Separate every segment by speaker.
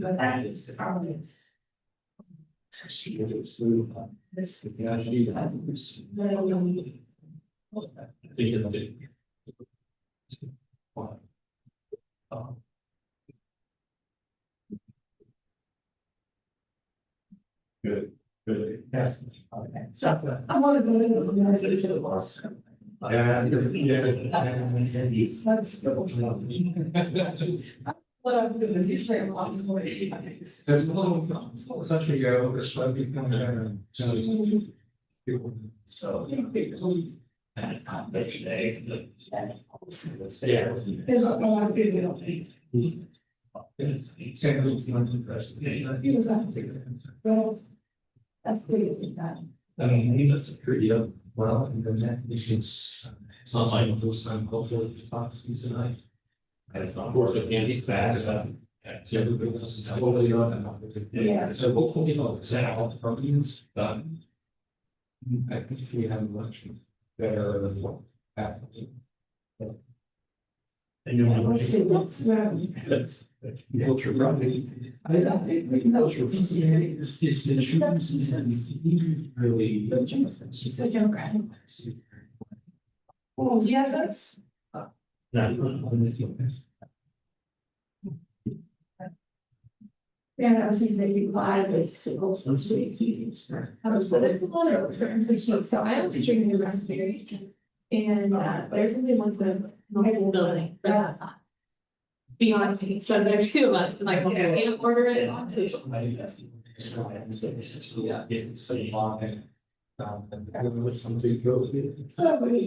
Speaker 1: But that is always. So she
Speaker 2: was moved on.
Speaker 1: this.
Speaker 2: Yeah, she was. Good, good. Yes.
Speaker 1: Okay, so uh, I'm one of the little guys that should have lost.
Speaker 2: Yeah,
Speaker 1: These folks go for it. What I'm doing, usually I'm lots of more.
Speaker 2: There's a little, such a go, it's like you come down and. people-
Speaker 1: So.
Speaker 2: And I'm there today, like,
Speaker 1: There's
Speaker 2: yeah.
Speaker 1: a lot of people don't think.
Speaker 2: Same rules, not to press.
Speaker 1: He was out to- Well, that's pretty bad.
Speaker 2: I mean, he was pretty up, well, and then that issues. It's not like those some cultural hypotheses tonight. And it's not worth it, and he's bad, is that. Yeah, everybody else is totally on and.
Speaker 1: Yeah.
Speaker 2: So hopefully, you know, it's out all the problems, but. I think we have much better than what happened. And you
Speaker 1: We'll see what's around.
Speaker 2: That's. Culture probably. um, I don't think we
Speaker 1: culture is-
Speaker 2: It's it's the insurance and really.
Speaker 1: But Jameson, she's so democratic. Oh, do you have those? Yeah, I was thinking that you lied was single from three years. Um, so there's a lot of experience with sheep, so I am featuring new raspberry. And uh, there's only one the
Speaker 3: Whole building.
Speaker 1: Yeah.
Speaker 3: Beyond me, so there's two of us, and like, okay, we can't order it on to.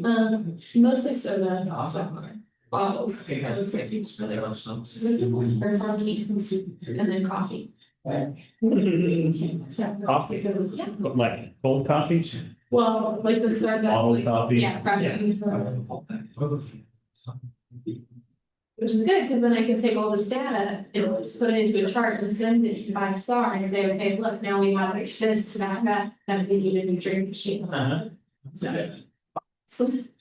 Speaker 3: Um, mostly soda, also. Bottles, so it's like each really well. There's meats and then coffee. So,
Speaker 4: Coffee,
Speaker 3: yeah,
Speaker 4: but like cold coffee,
Speaker 3: well, like the soda.
Speaker 4: bottled
Speaker 3: like-
Speaker 4: coffee.
Speaker 3: Yeah, frapppuccino. Which is good, because then I can take all this data and just put it into a chart and send it to five star and say, okay, look, now we have like this, that, that, that we need a new drink machine.
Speaker 4: Uh-huh.
Speaker 3: So.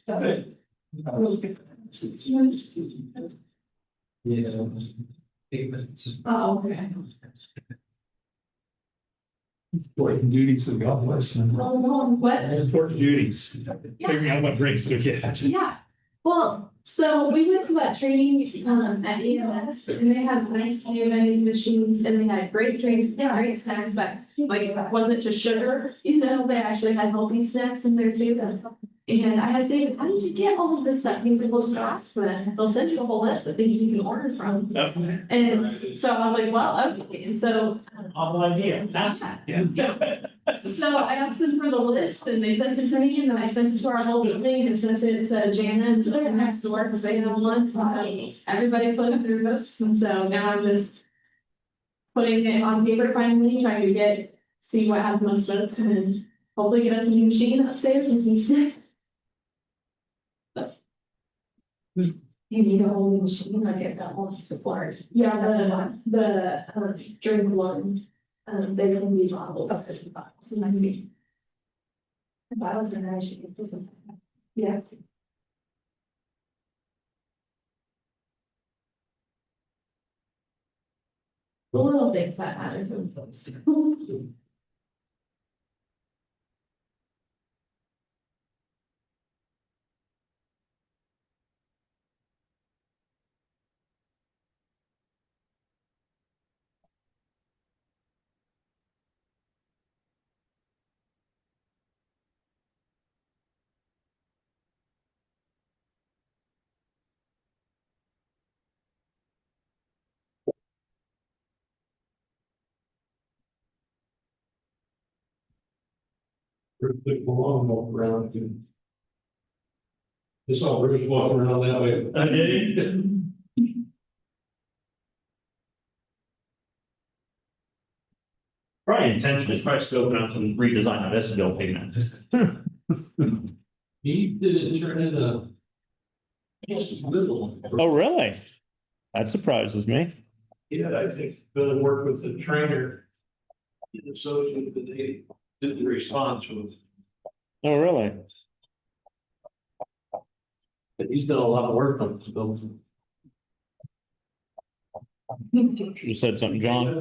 Speaker 3: So. uh,
Speaker 1: Oh, okay.
Speaker 2: Important duties of God bless them.
Speaker 3: Well, no, what?
Speaker 2: Important duties.
Speaker 3: Figuring
Speaker 4: out what drinks to get.
Speaker 3: Yeah, well, so we went to that training um at EMS and they had nice new vending machines and they had great drinks, yeah, great snacks, but like it wasn't just sugar, you know, they actually had healthy snacks in there too. And I asked David, how did you get all of this stuff? He's like, well, just ask them, they'll send you a whole list of things you can order from. And so I was like, well, okay, and so
Speaker 4: All idea, that's.
Speaker 3: so I asked them for the list and they sent it to me and then I sent it to our whole building and sent it to Jana and to the next door because they had one. So Everybody put it through this and so now I'm just. Putting it on paper finally, trying to get, see what has the most votes and then hopefully get us a new machine upstairs and some snacks. But- You need a whole new machine, I get that whole support. Yeah, the the um drink one, um they can be bottles. So I see.
Speaker 1: The bottles are nice, you can put some.
Speaker 3: Yeah. The Little things that matter to folks.
Speaker 2: Really long walk around and. This all rivers walking around that way.
Speaker 4: I did Probably intentionally, try to open up and redesign of this building.
Speaker 2: He didn't turn in a. Little.
Speaker 4: Oh, really? That surprises me.
Speaker 2: Yeah, I think better work with the trainer. And associate that they did the response with,
Speaker 4: Oh, really?
Speaker 2: but he's done a lot of work on this building.
Speaker 4: You said something, John?